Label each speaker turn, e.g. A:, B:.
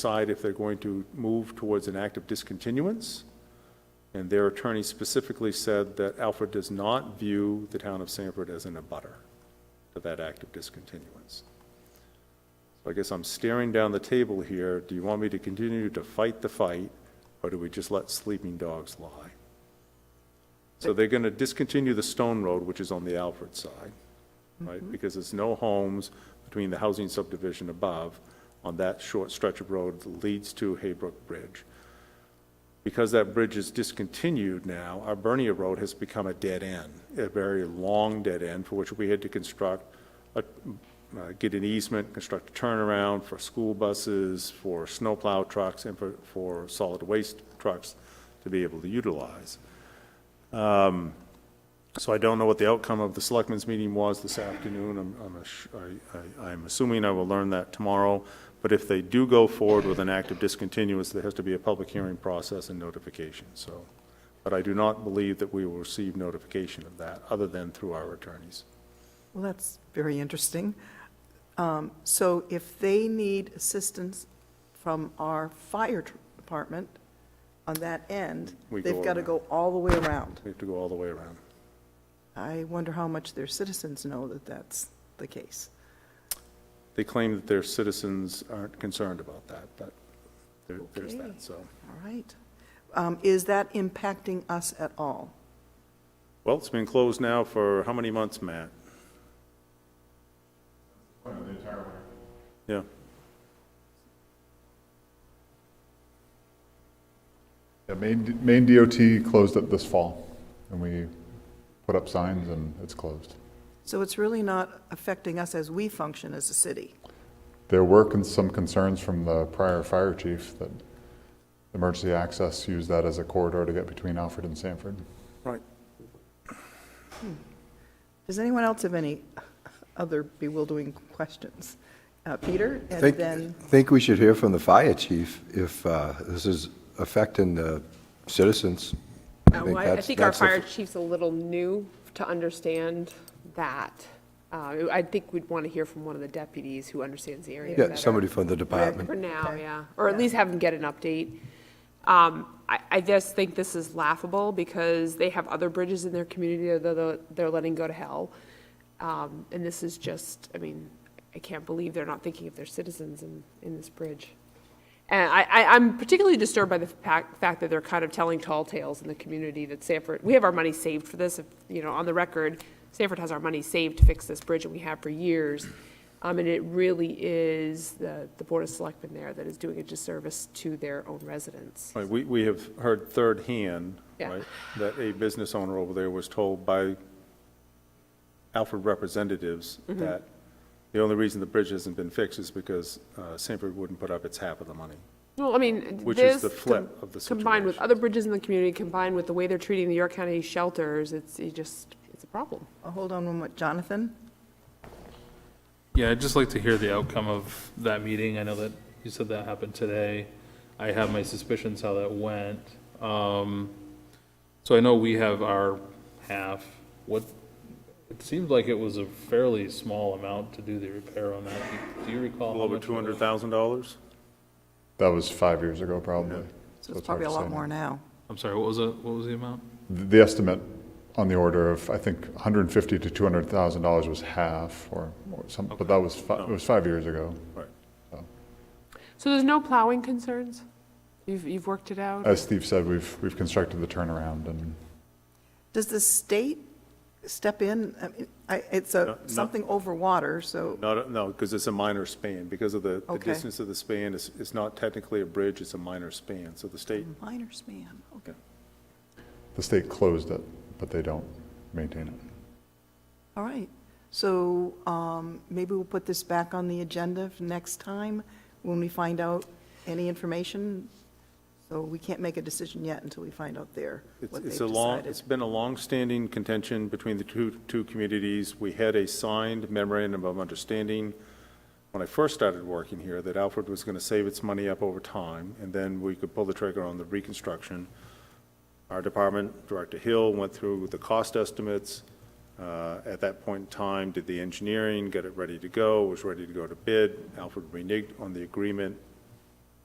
A: decide if they're going to move towards an act of discontinuance. And their attorney specifically said that Alfred does not view the town of Sanford as an abutter to that act of discontinuance. So I guess I'm staring down the table here. Do you want me to continue to fight the fight, or do we just let sleeping dogs lie? So they're going to discontinue the Stone Road, which is on the Alfred side, right? Because there's no homes between the housing subdivision above on that short stretch of road that leads to Haybrook Bridge. Because that bridge is discontinued now, our Bernier Road has become a dead end, a very long dead end for which we had to construct, a- uh, get an easement, construct a turnaround for school buses, for snowplow trucks, and for, for solid waste trucks to be able to utilize. So I don't know what the outcome of the selectmen's meeting was this afternoon. I'm, I'm, ass- I- I- I'm assuming I will learn that tomorrow. But if they do go forward with an act of discontinuance, there has to be a public hearing process and notification, so. But I do not believe that we will receive notification of that, other than through our attorneys.
B: Well, that's very interesting. Um, So if they need assistance from our fire tr- department on that end,
A: We
B: they've
A: go
B: got to
A: around.
B: go all the way around.
A: We have to go all the way around.
B: I wonder how much their citizens know that that's the case.
A: They claim that their citizens aren't concerned about that, but there, there's
B: Okay.
A: that, so.
B: All right. Um, Is that impacting us at all?
A: Well, it's been closed now for how many months, Matt? Yeah.
C: Yeah, Maine, Maine DOT closed it this fall, and we put up signs and it's closed.
B: So it's really not affecting us as we function as a city.
C: There were con- some concerns from the prior fire chief that emergency access used that as a corridor to get between Alfred and Sanford.
A: Right.
B: Does anyone else have any other bewildering questions? Uh, Peter, and
D: Think-
B: then,
D: Think we should hear from the fire chief if uh, this is affecting the citizens.
E: Uh, well, I I
D: that's-
E: think our
D: that's the-
E: fire chief's a little new to understand that. Uh, I think we'd want to hear from one of the deputies who understands the area
D: Yeah,
E: better.
D: somebody from the department.
E: For now, yeah, or at least have them get an update. Um, I, I just think this is laughable because they have other bridges in their community that they're, they're letting go to hell. Um, and this is just, I mean, I can't believe they're not thinking of their citizens in, in this bridge. And I, I, I'm particularly disturbed by the fact, fact that they're kind of telling tall tales in the community that Sanford, we have our money saved for this, if, you know, on the record, Sanford has our money saved to fix this bridge, and we have for years. Um, and it really is the, the Board of Selectmen there that is doing a disservice to their own residents.
A: Right, we, we have heard third hand,
E: Yeah.
A: right, that a business owner over there was told by Alfred representatives that the only reason the bridge hasn't been fixed is because uh, Sanford wouldn't put up its half of the money.
E: Well, I mean,
A: Which is
E: this
A: the flip
E: com-
A: of the
E: Combined with
A: situation.
E: other bridges in the community, combined with the way they're treating the York County shelters, it's, it just, it's a problem.
B: oh, hold on one moment, Jonathan?
F: Yeah, I'd just like to hear the outcome of that meeting. I know that you said that happened today. I have my suspicions how that went. Um, so I know we have our half. What, it seemed like it was a fairly small amount to do the repair on that. Do you
A: A
F: recall? how
A: little over
F: much it was?
A: $200,000?
C: That was five years ago, probably.
B: So it's
C: hard
B: probably a
C: to
B: lot
C: say
B: more
C: now.
B: now.
F: I'm sorry, what was it? What was the amount?
C: The the estimate on the order of, I think, 150 to 200,000 dollars was half or, or something, but that was, fi- it was five years ago.
A: Right.
E: So there's no plowing concerns? You've, you've worked it out?
C: As Steve said, we've, we've constructed the turnaround and
B: Does the state step in? I mean, I, it's
A: No,
B: a,
A: no.
B: something over water, so,
A: No, no, because it's a minor span, because of the, the
B: Okay.
A: distance of the span, it's, it's not technically a bridge, it's a minor span, so the state,
B: minor span, okay.
C: the state closed it, but they don't maintain it.
B: All right, so, um, maybe we'll put this back on the agenda for next time when we find out any information. So we can't make a decision yet until we find out there
A: It's,
B: what they've
A: it's a long,
B: decided.
A: it's been a long-standing contention between the two, two communities. We had a signed memorandum of understanding when I first started working here, that Alfred was going to save its money up over time, and then we could pull the trigger on the reconstruction. Our department, Director Hill, went through the cost estimates. uh, At that point in time, did the engineering, got it ready to go, was ready to go to bid. Alfred reneged on the agreement